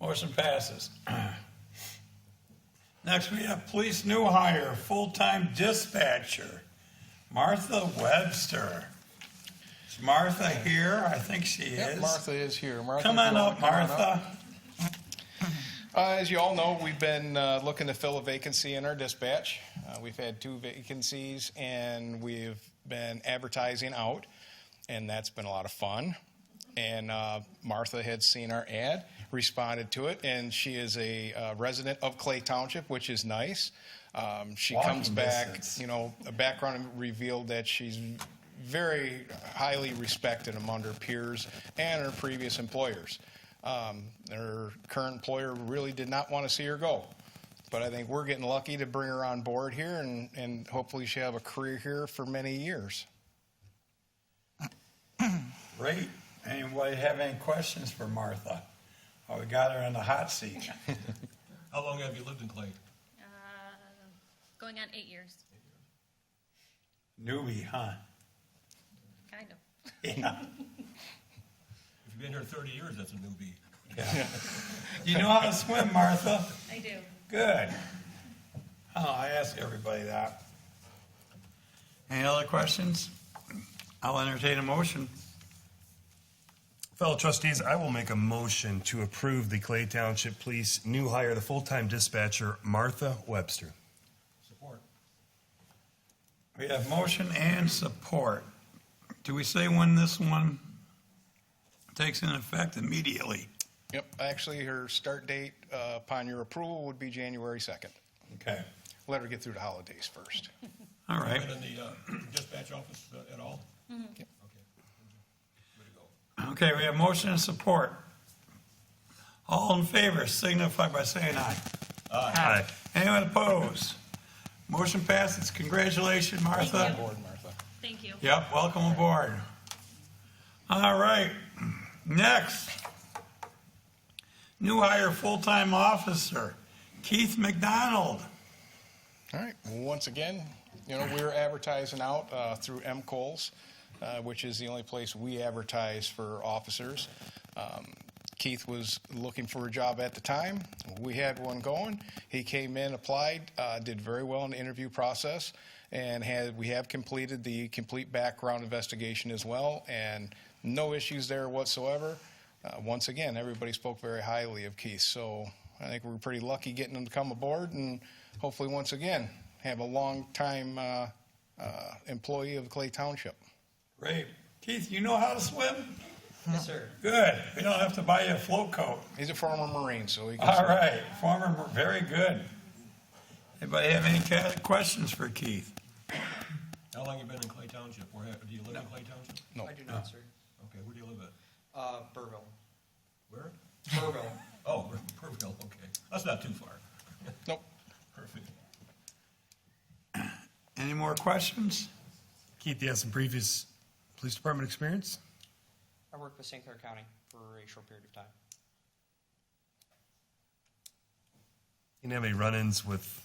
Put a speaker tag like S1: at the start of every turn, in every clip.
S1: Motion passes. Next, we have police new hire, full-time dispatcher, Martha Webster. Is Martha here? I think she
S2: Yep,
S1: is.
S2: Martha is here. Martha,
S1: Come
S2: if you
S1: on
S2: wanna
S1: up,
S2: come on
S1: Martha.
S2: Uh, As you all know, we've been uh, looking to fill a vacancy in our dispatch. Uh, We've had two vacancies, and we've been advertising out, and that's been a lot of fun. And uh, Martha had seen our ad, responded to it, and she is a uh, resident of Clay Township, which is nice. Um, She
S1: Walking
S2: comes back,
S1: distance.
S2: you know, a background revealed that she's very highly respected among her peers and her previous employers. Um, her current employer really did not want to see her go. But I think we're getting lucky to bring her on board here, and, and hopefully she'll have a career here for many years.
S1: Great. Anybody have any questions for Martha? Oh, we got her in the hot seat.
S3: How long have you lived in Clay?
S4: Uh, going on eight years,
S1: Newbie, huh?
S4: kind of.
S1: Yeah.
S3: If you've been here 30 years, that's a newbie.
S1: yeah. You know how to swim, Martha?
S4: I do.
S1: Good. Oh, I ask everybody that. Any other questions? I'll entertain a motion.
S5: Fellow trustees, I will make a motion to approve the Clay Township Police new hire, the full-time dispatcher Martha Webster.
S3: Support.
S1: We have motion and support. Do we say when this one takes in effect immediately?
S2: Yep, actually, her start date uh, upon your approval would be January 2nd.
S1: Okay.
S2: Let her get through the holidays first.
S1: All right.
S3: Been in the uh, dispatch office uh, at all? Okay. Way to go.
S1: Okay, we have motion and support. All in favor signify by saying aye.
S5: Aye.
S1: Anyone opposed? Motion passes. Congratulations, Martha.
S4: Thank you.
S2: Board, Martha.
S4: Thank you.
S1: Yep, welcome aboard. All right, next. New hire, full-time officer, Keith McDonald.
S2: All right. Well, once again, you know, we're advertising out uh, through M. Coles, uh, which is the only place we advertise for officers. Um, Keith was looking for a job at the time. We had one going. He came in, applied, uh, did very well in the interview process, and had we have completed the complete background investigation as well, and no issues there whatsoever. Uh, once again, everybody spoke very highly of Keith, so I think we were pretty lucky getting him to come aboard, and hopefully, once again, have a long-time uh, uh, employee of Clay Township.
S1: Great. Keith, you know how to swim?
S6: Yes, sir.
S1: Good, we don't have to buy you a float coat.
S2: He's a former Marine, so he can.
S1: All right, former, very good. Anybody have any ca- questions for Keith?
S3: How long you been in Clay Township? Where, ha- do you live in Clay Township?
S2: No.
S6: I do not, sir.
S3: Okay, where do you live at?
S6: Uh, Burville.
S3: Where?
S6: Burville.
S3: Oh, we're in Purville, okay. That's not too far.
S2: Nope.
S3: Perfect.
S1: Any more questions?
S5: Keith, you have some previous police department experience?
S6: I worked with St. Clair County for a short period of time.
S5: You didn't have any run-ins with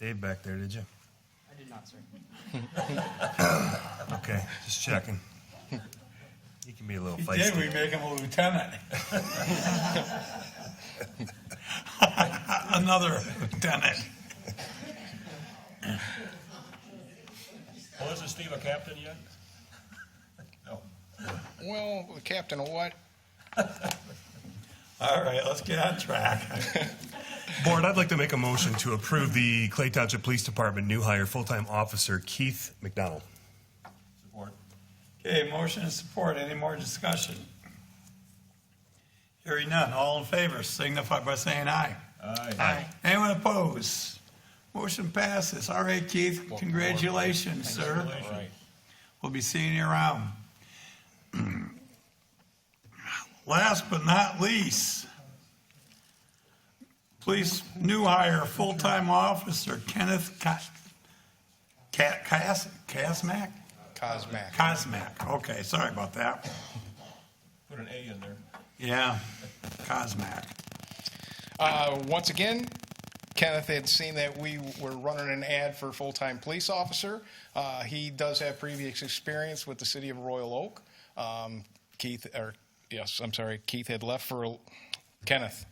S5: Dave back there, did you?
S6: I did not, sir.
S5: Okay, just checking. He can be a little
S1: He did, we
S5: feisty.
S1: make him a lieutenant. Another lieutenant.
S3: Well, isn't Steve a captain yet? No.
S2: Well, the captain of what?
S1: All right, let's get on track.
S5: Board, I'd like to make a motion to approve the Clay Township Police Department new hire, full-time officer Keith McDonald.
S3: Support.
S1: Okay, motion and support, any more discussion? Hearing none, all in favor signify by saying aye.
S3: Aye.
S1: Anyone opposed? Motion passes. All right, Keith, congratulations, sir.
S3: Congratulations.
S1: We'll be seeing you around. Last but not least, police new hire, full-time officer Kenneth Ka- Ka- Kas- Kasmak?
S2: Cosmac.
S1: Kosmak, okay, sorry about that.
S3: Put an A in there.
S1: Yeah, Kosmak.
S2: Uh, once again, Kenneth had seen that we were running an ad for full-time police officer. Uh, he does have previous experience with the city of Royal Oak. Um, Keith, or yes, I'm sorry, Keith had left for Kenneth